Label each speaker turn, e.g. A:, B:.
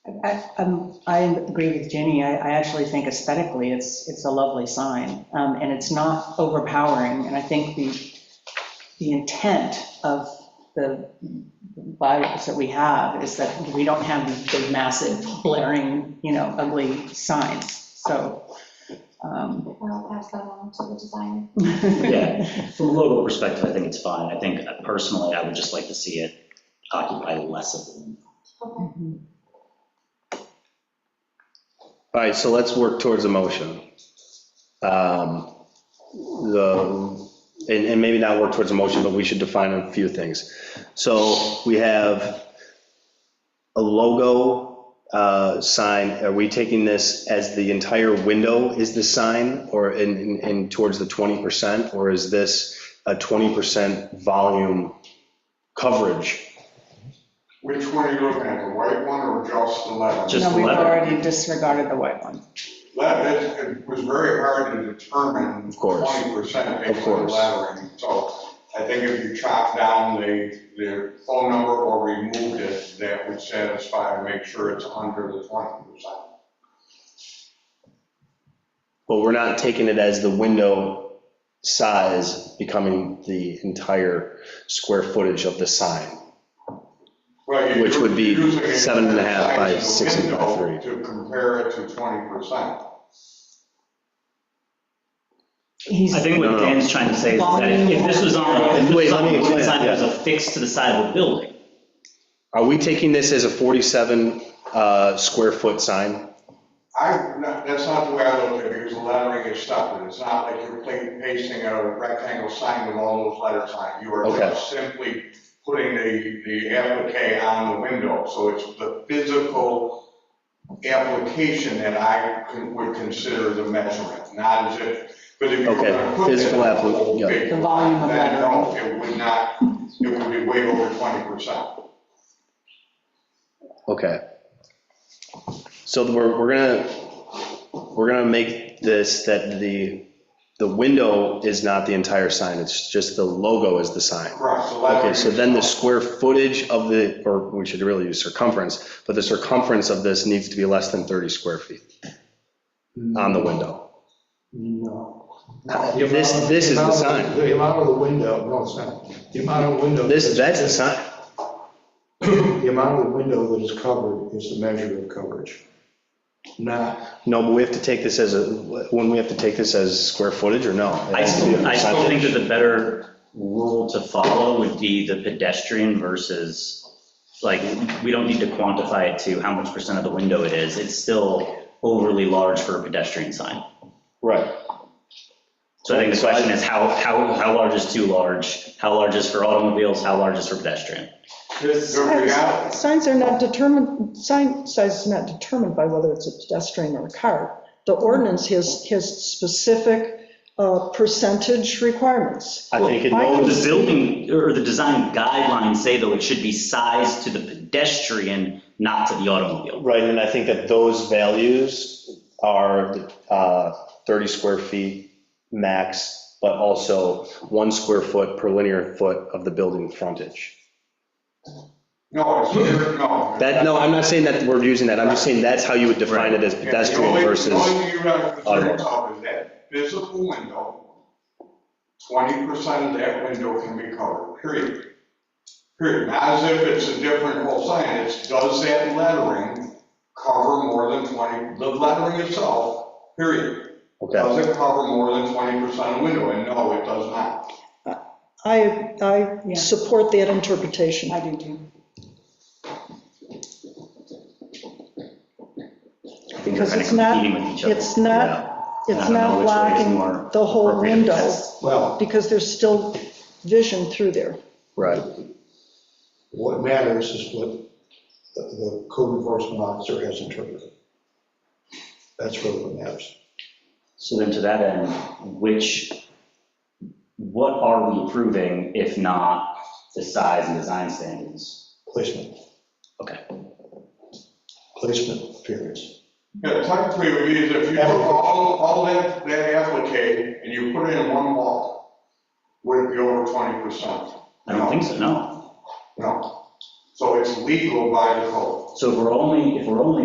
A: I, um, I agree with Jenny. I, I actually think aesthetically, it's, it's a lovely sign, um, and it's not overpowering, and I think the, the intent of the bylaws that we have is that we don't have these big, massive, blaring, you know, ugly signs, so. um,
B: I'll pass that on to the designer.
A: Yeah,
C: Yeah. From a logo perspective, I think it's fine. I think uh, personally, I would just like to see it occupy less of them.
B: Okay.
D: All right, so let's work towards a motion. Um, The, and, and maybe not work towards a motion, but we should define a few things. So we have a logo uh, sign, are we taking this as the entire window is the sign or in, in- in towards the 20%? Or is this a 20% volume coverage?
E: Which one are you looking at, the white one or just the leather?
C: Just
A: No, we've
C: leather.
A: already disregarded the white one.
E: Leather, it was very hard to determine.
D: Of course.
E: Twenty percent based
D: Of
E: on
D: course.
E: lettering, so I think if you chop down the, the phone number or removed it, that would satisfy and make sure it's under the twenty percent.
D: But we're not taking it as the window size becoming the entire square footage of the sign. Which would be seven and a half by six and by three.
E: To compare it to twenty percent.
A: He's-
C: I think what
D: No, no.
C: Dan's trying to say is that if if this was on, if this
D: Wait,
C: was
D: let
C: on
D: me
C: a
D: explain,
C: wood sign that was
D: yeah.
C: affixed to the side of a building,
D: Are we taking this as a 47 uh, square foot sign?
E: I, no, that's not the way I look at it, because the lettering is separate, it's not like you're pla- pasting a rectangle sign with all those letters on it. You are
D: Okay.
E: just simply putting the, the applique on the window, so it's the physical application that I con- would consider the measurement, not as if, but if you were
D: Okay,
E: gonna put
D: physical
E: that
D: appli-
E: whole
D: yeah.
E: big
A: The volume of
E: then
A: lettering.
E: no, It would not, it would be way over twenty percent.
D: Okay. So we're, we're gonna, we're gonna make this that the, the window is not the entire sign, it's just the logo is the sign.
E: Correct, the lettering.
D: Okay, so then the
E: is-
D: square footage of the, or we should really use circumference, but the circumference of this needs to be less than 30 square feet on the window.
F: No.
D: This- this is the sign.
F: The amount of the window, no, it's not. The amount of window.
D: This, that's the sign,
F: The amount of the window that is covered is the measure of coverage. Not,
D: no, but we have to take this as a, when we have to take this as square footage or no? It
C: I
D: has to be a
C: still, I still think that
D: percentage.
C: the better rule to follow would be the pedestrian versus, like, we don't need to quantify it to how much percent of the window it is. It's still overly large for a pedestrian sign.
D: Right,
C: So I think the
D: So I-
C: question is how, how, how large is too large? How large is for automobiles? How large is for pedestrian?
E: The reality-
G: Signs are not determined, sign size is not determined by whether it's a pedestrian or a car. The ordinance has, has specific uh, percentage requirements.
D: I think it
G: Well, I
D: knows.
G: can
C: The building, or the design guidelines say though it should be sized to the pedestrian, not to the automobile.
D: Right, and I think that those values are uh, 30 square feet max, but also one square foot per linear foot of the building frontage.
E: No, it's, no.
D: That, no, I'm not saying that we're using that, I'm just saying that's how you would define it as
E: Yeah,
D: pedestrian
E: The only- the
D: versus,
E: only thing you have to concern
D: automobile.
E: yourself is that physical window, twenty percent of that window can be covered, period. Period, not as if it's a different whole sign, it's, does that lettering cover more than twenty, the lettering itself, period.
D: okay.
E: Does it cover more than twenty percent of window, and no, it does not.
A: Yeah.
G: I, I support that interpretation.
A: I do too.
C: I think they're
G: Because
C: kind of
G: it's not-
C: competing with each other.
G: It's not, it's not blocking the whole window,
F: well,
G: because there's still vision through there.
D: Right,
F: what matters is what the- the code enforcement officer has interpreted. That's really what matters.
C: So then to that end, which, what are we approving if not the size and design standards?
F: Placement,
C: Okay.
F: placement, period.
E: Yeah, technically, it would be as if you took all, all that, that applique, and you put it in one wall, would it be over twenty percent?
C: I don't think so, no.
E: No. So it's legal by default.
C: So if we're only, if we're only